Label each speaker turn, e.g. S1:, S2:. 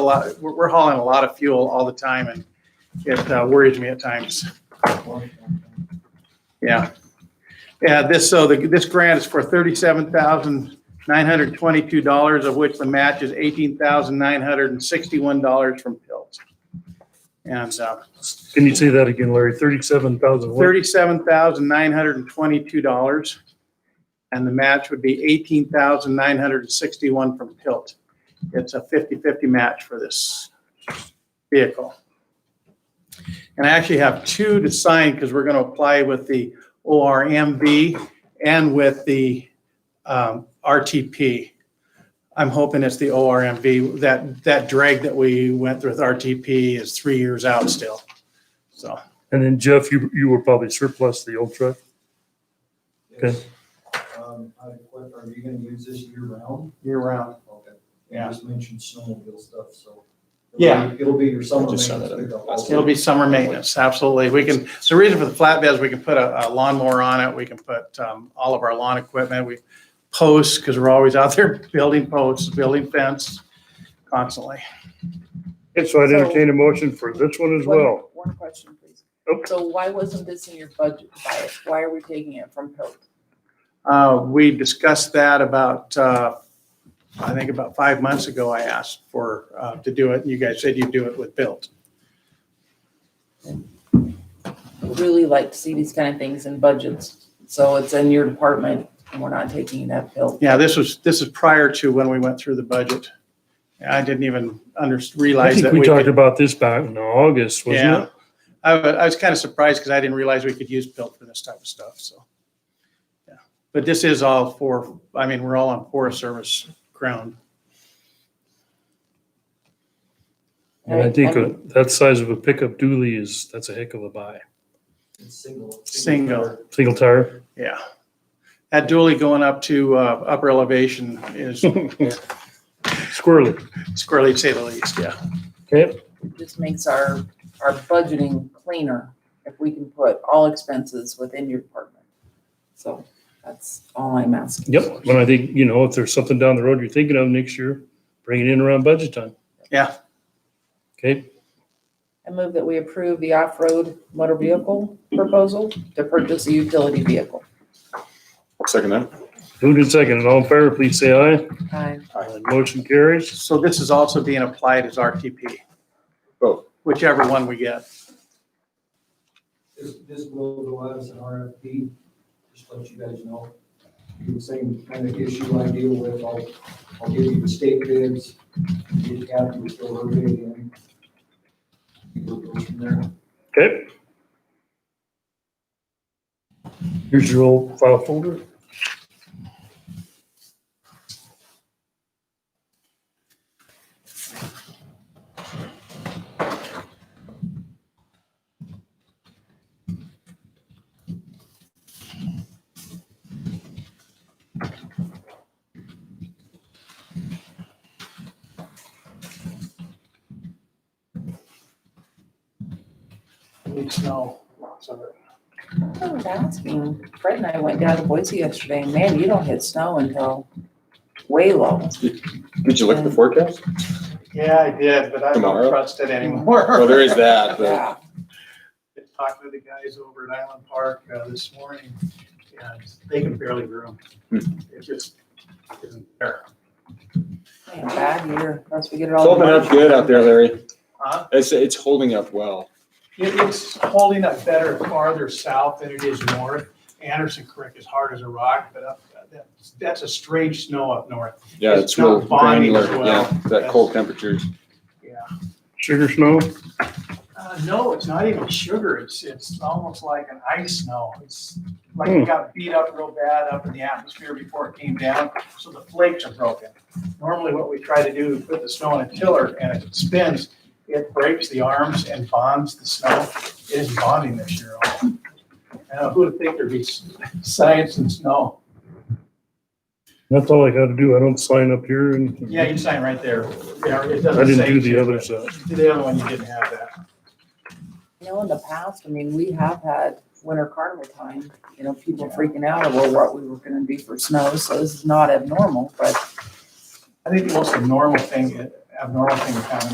S1: a lot, we're, we're hauling a lot of fuel all the time and it uh, worries me at times. Yeah. Yeah, this, so the, this grant is for thirty-seven thousand nine hundred twenty-two dollars, of which the match is eighteen thousand nine hundred and sixty-one dollars from Pills. And, uh,
S2: Can you say that again, Larry? Thirty-seven thousand.
S1: thirty-seven thousand nine hundred and twenty-two dollars. And the match would be eighteen thousand nine hundred and sixty-one from Tilt. It's a 50-50 match for this vehicle. And I actually have two to sign because we're going to apply with the ORMV and with the um, RTP. I'm hoping it's the ORMV. That, that drag that we went through with RTP is three years out still. So.
S2: And then Jeff, you, you were probably surplus the old truck. Okay.
S3: Um, I have a question, are you gonna use this year round?
S1: year round.
S3: Okay.
S1: Yeah.
S3: You just mentioned snowmobile stuff, so. it'll be-
S1: Yeah.
S3: It'll be your summer
S1: Just sum it
S3: maintenance pickup. also.
S1: It'll be summer maintenance, absolutely. We can, so the reason for the flatbeds, we can put a a lawnmower on it, we can put um, all of our lawn equipment, we posts, because we're always out there building posts, building fence constantly.
S2: And so I'd entertain a motion for this one as
S4: One-
S2: well.
S4: One question, please.
S2: Oh.
S4: So why wasn't this in your budget bias? Why are we taking it from Pilt?
S1: Uh, We discussed that about, uh, I think about five months ago, I asked for, uh, to do it, and you guys said you'd do it with built.
S4: Really like to see these kind of things in budgets. So it's in your department and we're not taking it at Pilt.
S1: Yeah, this was, this is prior to when we went through the budget. I didn't even under,
S2: I
S1: realize
S2: think
S1: that
S2: we
S1: we
S2: talked
S1: could
S2: about this back in August,
S1: Yeah.
S2: wasn't it?
S1: I, wa- I was kind of surprised because I didn't realize we could use built for this type of stuff, so. yeah. But this is all for, I mean, we're all on Forest Service ground.
S2: And I think
S4: Right.
S2: a- that size of a pickup dually is, that's a heck of a buy.
S3: It's Single.
S1: Single.
S3: tire.
S2: Single tire.
S1: Yeah. That dually going up to uh, upper elevation is
S2: Squirrely.
S1: squarely to say the least, yeah.
S2: Okay.
S4: It Just makes our, our budgeting cleaner if we can put all expenses within your department. So that's all I'm asking.
S2: Yep. When I think, you know, if there's something down the road you're thinking of next year, bring it in around budget time.
S1: Yeah.
S2: Okay.
S4: I move that we approve the off-road motor vehicle proposal to purchase a utility vehicle.
S5: Second that.
S2: Moved and seconded. All in favor, please say aye.
S4: Aye.
S2: Aye. Motion carries.
S1: So this is also being applied as RTP.
S5: Both.
S1: Whichever one we get.
S3: This, this will go out as an RFP, just to let you guys know. The same kind of issue I deal with, I'll, I'll give you the state bids, get Kathy to fill her bid in. We'll go from there.
S2: Okay. Here's your old file folder.
S1: Need snow, lots of it.
S4: I was asking, Oh, Fred and I went down to Boise yesterday, and man, you don't hit snow until way low.
S5: Did you look at the forecast?
S1: Yeah, I did, but I don't
S5: Tomorrow?
S1: trust it anymore.
S5: Well, there is that, but
S4: Yeah,
S1: been talking to the guys over at Island Park uh, this morning, and they can barely room.
S5: Hmm.
S1: It just isn't there.
S4: man, bad year, unless we get it
S5: it's
S4: all.
S5: holding up good out there, Larry.
S1: Huh?
S5: It's, it's holding up well.
S1: It- It's holding up better farther south than it is north. Anderson Creek is hard as a rock, but up, that- that's a strange snow up north.
S5: Yeah,
S1: It's
S5: it's real
S1: not bonding
S5: granular.
S1: as well.
S5: Yeah, that cold temperatures.
S2: Sugar snow.
S1: Uh, no, it's not even sugar. It's, it's almost like an ice snow. It's like it
S2: Hmm.
S1: got beat up real bad up in the atmosphere before it came down, so the flakes are broken. Normally what we try to do is put the snow in a tiller and it spins, it breaks the arms and bonds the snow. It is bonding this year. all. Uh, who would think there'd be s- science in snow?
S2: That's all I got to do. I don't sign up here and
S1: Yeah, you sign right there. Yeah, it
S2: I
S1: doesn't
S2: didn't
S1: say
S2: do the uh,
S1: to,
S2: other
S1: but
S2: side.
S1: The other one, you didn't have that.
S4: You know, in the past, I mean, we have had winter carnival time, you know, people
S1: Yeah.
S4: freaking out over what we were gonna do for snow, so this is not abnormal, but
S1: I think the most abnormal thing, abnormal thing that happened